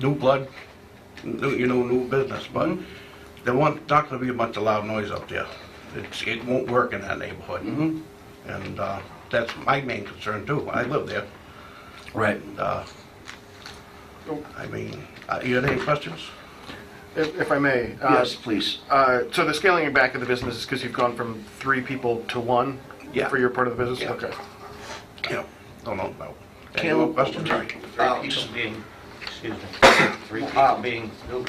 new blood, new, you know, new business, but there won't, not gonna be a bunch of loud noise up there. It's, it won't work in that neighborhood. And, uh, that's my main concern too. I live there. Right. And, uh, I mean, uh, you had any questions? If if I may. uh, Yes, please. uh, So the scaling back of the business is because you've gone from three people to one? Yeah. For your part of the business? Yeah. Okay. Yeah, don't know, no. Any more questions? Uh, Three just- people being, excuse me, three people being, no, no,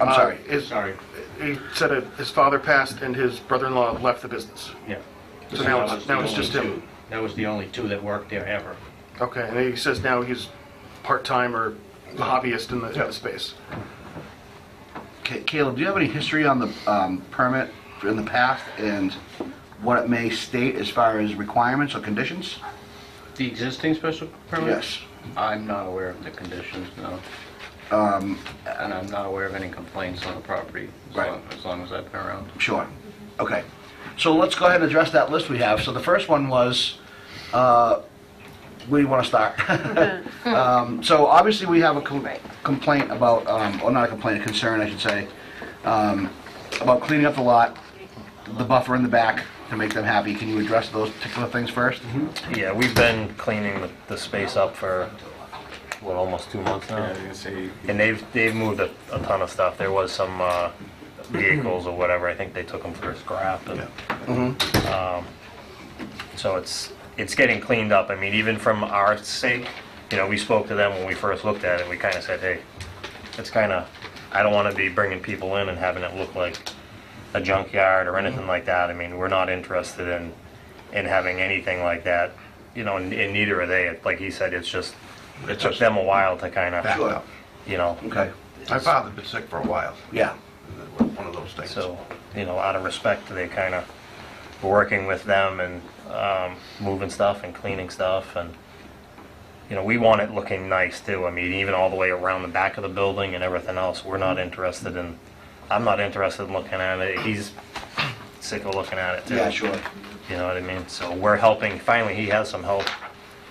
I'm Uh, sorry. is- sorry, He said that his father passed and his brother-in-law left the business. yeah. So now it's, now it's just him? That was the only two that worked there ever. Okay, and he says now he's part-time or hobbyist in the, in the space. Ca- Caleb, do you have any history on the um, permit in the past and what it may state as far as requirements or conditions? The existing special permit? Yes. I'm not aware of the conditions, no. Um, And I'm not aware of any complaints on the property, as Right. long, as long as I've been around. Sure. Okay. So let's go ahead and address that list we have. So the first one was, uh, where do you want to start? Um, So obviously, we have a com- complaint about, um, or not a complaint, a concern, I should say, um, about cleaning up the lot, the buffer in the back to make them happy. Can you address those particular things first? Yeah, we've been cleaning the, the space up for, what, almost two months now? And they've, they've moved a, a ton of stuff. There was some, uh, vehicles or whatever, I think they took them for scrap and, um, so it's, it's getting cleaned up. I mean, even from our sake, you know, we spoke to them when we first looked at it, we kinda said, hey, it's kinda, I don't wanna be bringing people in and having it look like a junkyard or anything like that. I mean, we're not interested in, in having anything like that, you know, and, and neither are they. Like he said, it's just, it It's took just them a while to kind backed of, up. you know, Okay. My father's been sick for a while. Yeah. One of those things. so, you know, out of respect, they kind of working with them and, um, moving stuff and cleaning stuff and, you know, we want it looking nice too. I mean, even all the way around the back of the building and everything else, we're not interested in, I'm not interested in looking at it. He's sick of looking at it too. Yeah, sure. You know what I mean? So we're helping, finally, he has some help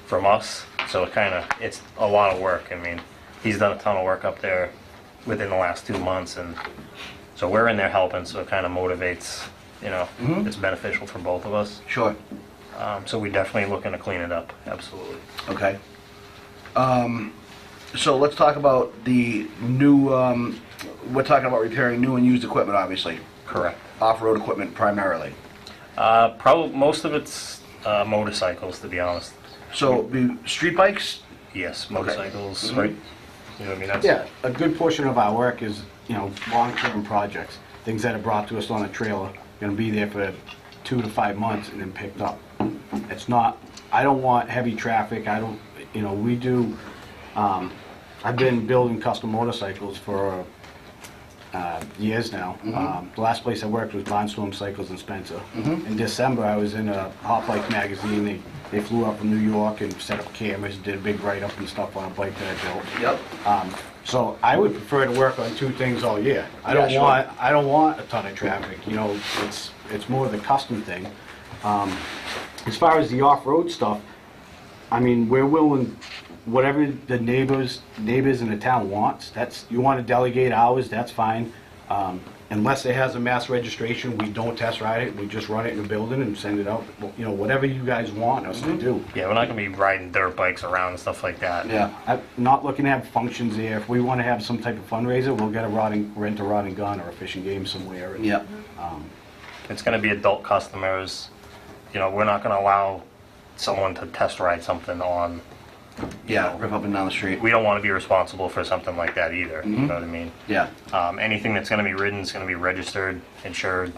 from us, so it kind of, it's a lot of work. I mean, he's done a ton of work up there within the last two months, and so we're in there helping, so it kind of motivates, you know, it's beneficial for both of us. Sure. Um, So we're definitely looking to clean it up, absolutely. Okay. Um, So let's talk about the new, um, we're talking about repairing new and used equipment, obviously. Correct. Off-road equipment primarily. Uh, probably, most of it's uh, motorcycles, to be honest. So the street bikes? Yes, motorcycles. Right. You know what I mean? That's- Yeah, a good portion of our work is, you know, long-term projects, things that are brought to us on a trailer, gonna be there for two to five months and then picked up. It's not, I don't want heavy traffic, I don't, you know, we do, um, I've been building custom motorcycles for, uh, years now. Um, The last place I worked was Barnstorm Cycles in Spencer. In December, I was in a Hot Bike magazine, they, they flew up from New York and set up cameras, did a big write-up and stuff on a bike that I built. Yep. Um, So I would prefer to work on two things all year. I Yeah, don't sure. want, I don't want a ton of traffic, you know, it's, it's more the custom thing. Um, As far as the off-road stuff, I mean, we're willing, whatever the neighbors, neighbors in the town wants, that's, you want to delegate hours, that's fine. Um, Unless it has a mass registration, we don't test ride it, we just run it in the building and send it out, you know, whatever you guys want us Mm-hmm. to do. Yeah, we're not gonna be riding dirt bikes around and stuff like that. Yeah. I'm not looking to have functions there. If we want to have some type of fundraiser, we'll get a rotting, rent a rotting gun or a fishing game somewhere. and- Yep. It's gonna be adult customers. You know, we're not gonna allow someone to test ride something on, Yeah, rip up and down the street. we don't wanna be responsible for something like that either, you know what I mean? Yeah. Um, anything that's gonna be ridden is gonna be registered, insured,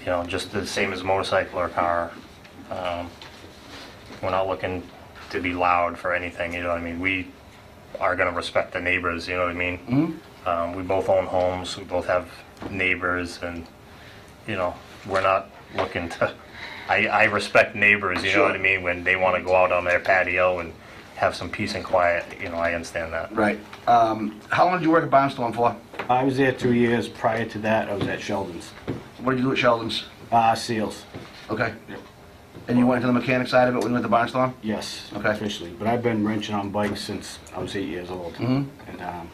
you know, just the same as motorcycle or car. Um, We're not looking to be loud for anything, you know what I mean? We are gonna respect the neighbors, you know what I mean? Um, we both own homes, we both have neighbors, and, you know, we're not looking to, I, I respect neighbors, you know what I mean? When they wanna go out on their patio and have some peace and quiet, you know, I understand that. Right. Um, How long did you work at Barnstorm for? I was there two years. Prior to that, I was at Sheldon's. What did you do at Sheldon's? Uh, Seals, Okay. And you went into the mechanic side of it when you went to Barnstorm? yes, Okay. officially. But I've been wrenching on bikes since I was eight years old. And um,